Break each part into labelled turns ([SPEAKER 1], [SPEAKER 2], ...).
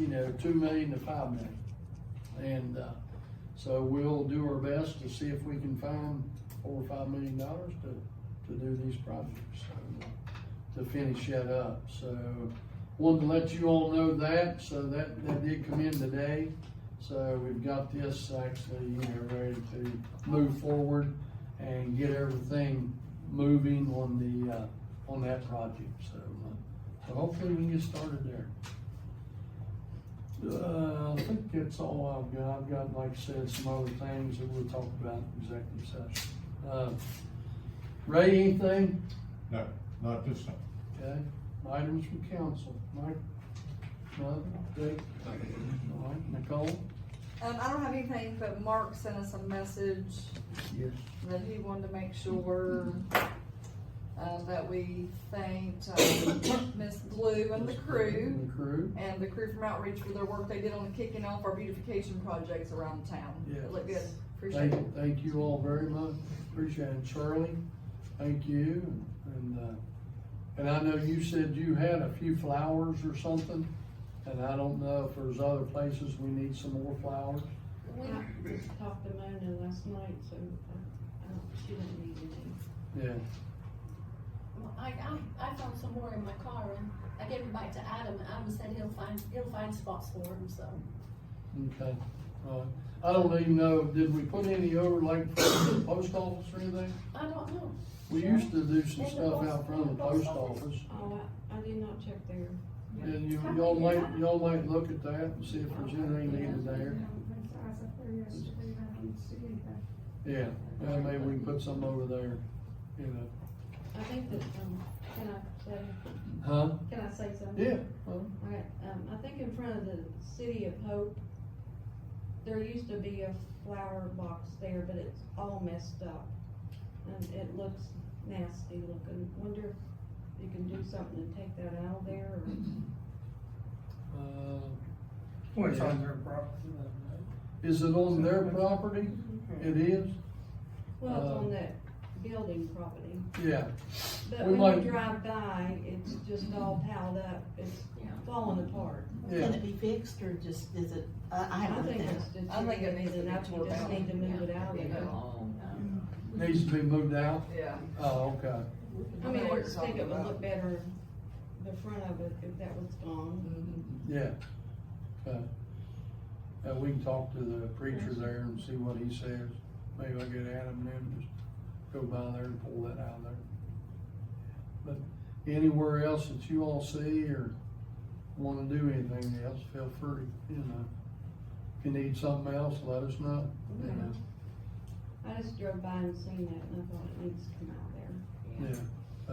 [SPEAKER 1] know, two million to five million. And, uh, so we'll do our best to see if we can find four or five million dollars to, to do these projects, so, uh, to finish that up. So, wanted to let you all know that, so that, that did come in today. So we've got this actually, you know, ready to move forward and get everything moving on the, uh, on that project, so, uh, so hopefully we can get started there. Uh, I think that's all I've got, I've got, like I said, some other things that we'll talk about in executive session. Uh, Ray, anything?
[SPEAKER 2] No, not this time.
[SPEAKER 1] Okay, items from council, Mike? No, Jake? All right, Nicole?
[SPEAKER 3] Um, I don't have anything, but Mark sent us a message
[SPEAKER 1] Yes.
[SPEAKER 3] that he wanted to make sure, um, that we thanked, um, Ms. Blue and the crew,
[SPEAKER 1] And the crew,
[SPEAKER 3] and the crew from Outreach for their work they did on kicking off our beautification projects around town.
[SPEAKER 1] Yes.
[SPEAKER 3] It looked good, appreciate
[SPEAKER 1] thank,
[SPEAKER 3] it.
[SPEAKER 1] thank you all very much, appreciate it, Shirley, thank you, and, uh, and I know you said you had a few flowers or something, and I don't know if there's other places we need some more flowers.
[SPEAKER 4] We just talked to Mona last night, so uh, I, I don't, she doesn't need anything.
[SPEAKER 1] Yeah,
[SPEAKER 5] Well, I, I, I found some more in my car and I gave them back to Adam and Adam said he'll find, he'll find spots for them, so.
[SPEAKER 1] okay, all right, I don't even know, did we put any over like for the post office or anything?
[SPEAKER 5] I don't know.
[SPEAKER 1] We
[SPEAKER 5] Sure.
[SPEAKER 1] used to do some
[SPEAKER 5] In the
[SPEAKER 1] stuff
[SPEAKER 5] post-
[SPEAKER 1] out front of the post office,
[SPEAKER 4] Oh, I, I did not check there.
[SPEAKER 1] and you, y'all might, y'all might look at that and see if there's anything needed there. Yeah, well, maybe we can put some over there, you know.
[SPEAKER 4] I think that, um, can I say,
[SPEAKER 1] Huh?
[SPEAKER 4] can I say something?
[SPEAKER 1] Yeah.
[SPEAKER 4] All right, um, I think in front of the City of Hope, there used to be a flower box there, but it's all messed up. And it looks nasty looking. Wonder if you can do something to take that out of there or?
[SPEAKER 1] Uh,
[SPEAKER 6] Well, it's on their property, then,
[SPEAKER 1] Is it on their property? It is?
[SPEAKER 4] Well, it's
[SPEAKER 1] Uh,
[SPEAKER 4] on that building property.
[SPEAKER 1] Yeah,
[SPEAKER 4] But
[SPEAKER 1] We
[SPEAKER 4] when
[SPEAKER 1] might-
[SPEAKER 4] you drive by, it's just all piled up, it's
[SPEAKER 5] Yeah.
[SPEAKER 4] falling apart.
[SPEAKER 7] Can
[SPEAKER 1] yeah.
[SPEAKER 7] it be fixed or just, is it, I, I
[SPEAKER 4] I
[SPEAKER 7] haven't looked
[SPEAKER 4] think
[SPEAKER 7] at it.
[SPEAKER 4] it's just.
[SPEAKER 3] I think it needs to be
[SPEAKER 4] You
[SPEAKER 3] torn
[SPEAKER 4] just
[SPEAKER 3] down.
[SPEAKER 4] need to move it out of there.
[SPEAKER 1] Needs to be moved out?
[SPEAKER 3] Yeah.
[SPEAKER 1] Oh, okay.
[SPEAKER 4] I mean, I just think it would
[SPEAKER 3] about.
[SPEAKER 4] look better, the front of it, if that was gone.
[SPEAKER 3] Mm-hmm.
[SPEAKER 1] Yeah. Okay. Uh, we can talk to the preacher there and see what he says. Maybe I'll get Adam and then just go by there and pull that out of there. But anywhere else that you all see or wanna do anything else, feel free, you know. If you need something else, let us know. you know.
[SPEAKER 4] I just drove by and seen that, and I thought it needs to come out there.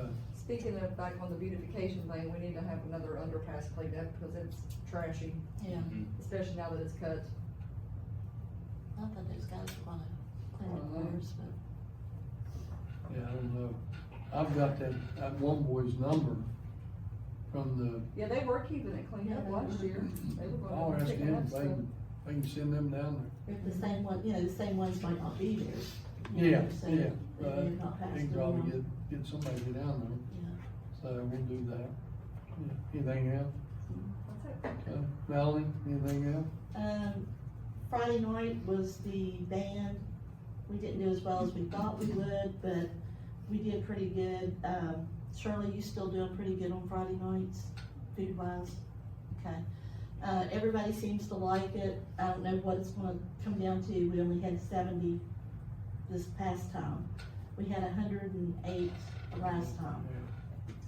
[SPEAKER 1] Yeah,
[SPEAKER 3] Speaking of back on the beautification thing, we need to have another underpass cleaned up because it's trashy,
[SPEAKER 7] Yeah,
[SPEAKER 3] especially now that it's cut.
[SPEAKER 7] I thought those guys were gonna clean
[SPEAKER 1] Mhm.
[SPEAKER 7] it first, but
[SPEAKER 1] yeah, I don't know. I've got that, that one boy's number from the
[SPEAKER 3] Yeah, they were keeping it clean up last year. They were
[SPEAKER 1] I'll
[SPEAKER 3] going to
[SPEAKER 1] ask
[SPEAKER 3] pick it
[SPEAKER 1] them
[SPEAKER 3] up
[SPEAKER 1] if they
[SPEAKER 3] stuff.
[SPEAKER 1] can, they can send them down
[SPEAKER 7] if the same one, you know, the same ones might not be there.
[SPEAKER 1] there.
[SPEAKER 7] you know,
[SPEAKER 1] Yeah,
[SPEAKER 7] so
[SPEAKER 1] yeah,
[SPEAKER 7] they
[SPEAKER 1] right.
[SPEAKER 7] may not pass
[SPEAKER 1] They can
[SPEAKER 7] them
[SPEAKER 1] probably
[SPEAKER 7] on.
[SPEAKER 1] get, get somebody to get down
[SPEAKER 7] Yeah.
[SPEAKER 1] there, so we'll do that. Yeah. Anything else?
[SPEAKER 3] That's it.
[SPEAKER 1] Okay. Melanie, anything else?
[SPEAKER 7] Um, Friday night was the band. We didn't do as well as we thought we would, but we did pretty good. Um, Shirley, you still doing pretty good on Friday nights, food wise? Okay. Uh, everybody seems to like it. I don't know what it's gonna come down to. We only had seventy this past time. We had hundred and eight last time.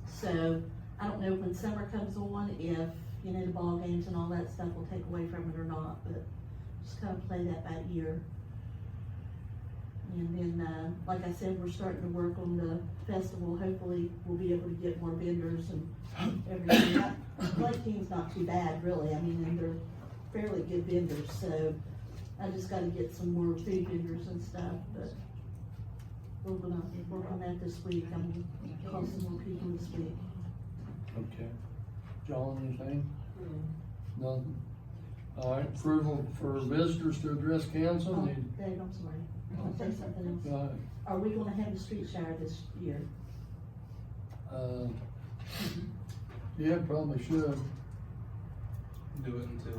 [SPEAKER 7] So I don't know when summer comes on, if, you know, the ball games and all that stuff will take away from it or not, but just kind of play that by ear. And then, uh, like I said, we're starting to work on the festival. Hopefully, we'll be able to get more vendors and everything. Not- Blood King's not too bad, really. I mean, and they're fairly good vendors, so I just gotta get some more food vendors and stuff, but we're gonna work on that this week. I'm gonna call some more people this week.
[SPEAKER 1] Okay. John, anything? Nothing? All right, approval for visitors to address council,
[SPEAKER 7] Oh,
[SPEAKER 1] need,
[SPEAKER 7] Dave, I'm sorry, I'll say something
[SPEAKER 1] uh,
[SPEAKER 7] else. Are we gonna have the street shower this year?
[SPEAKER 1] uh, yeah, probably should.
[SPEAKER 6] Do it until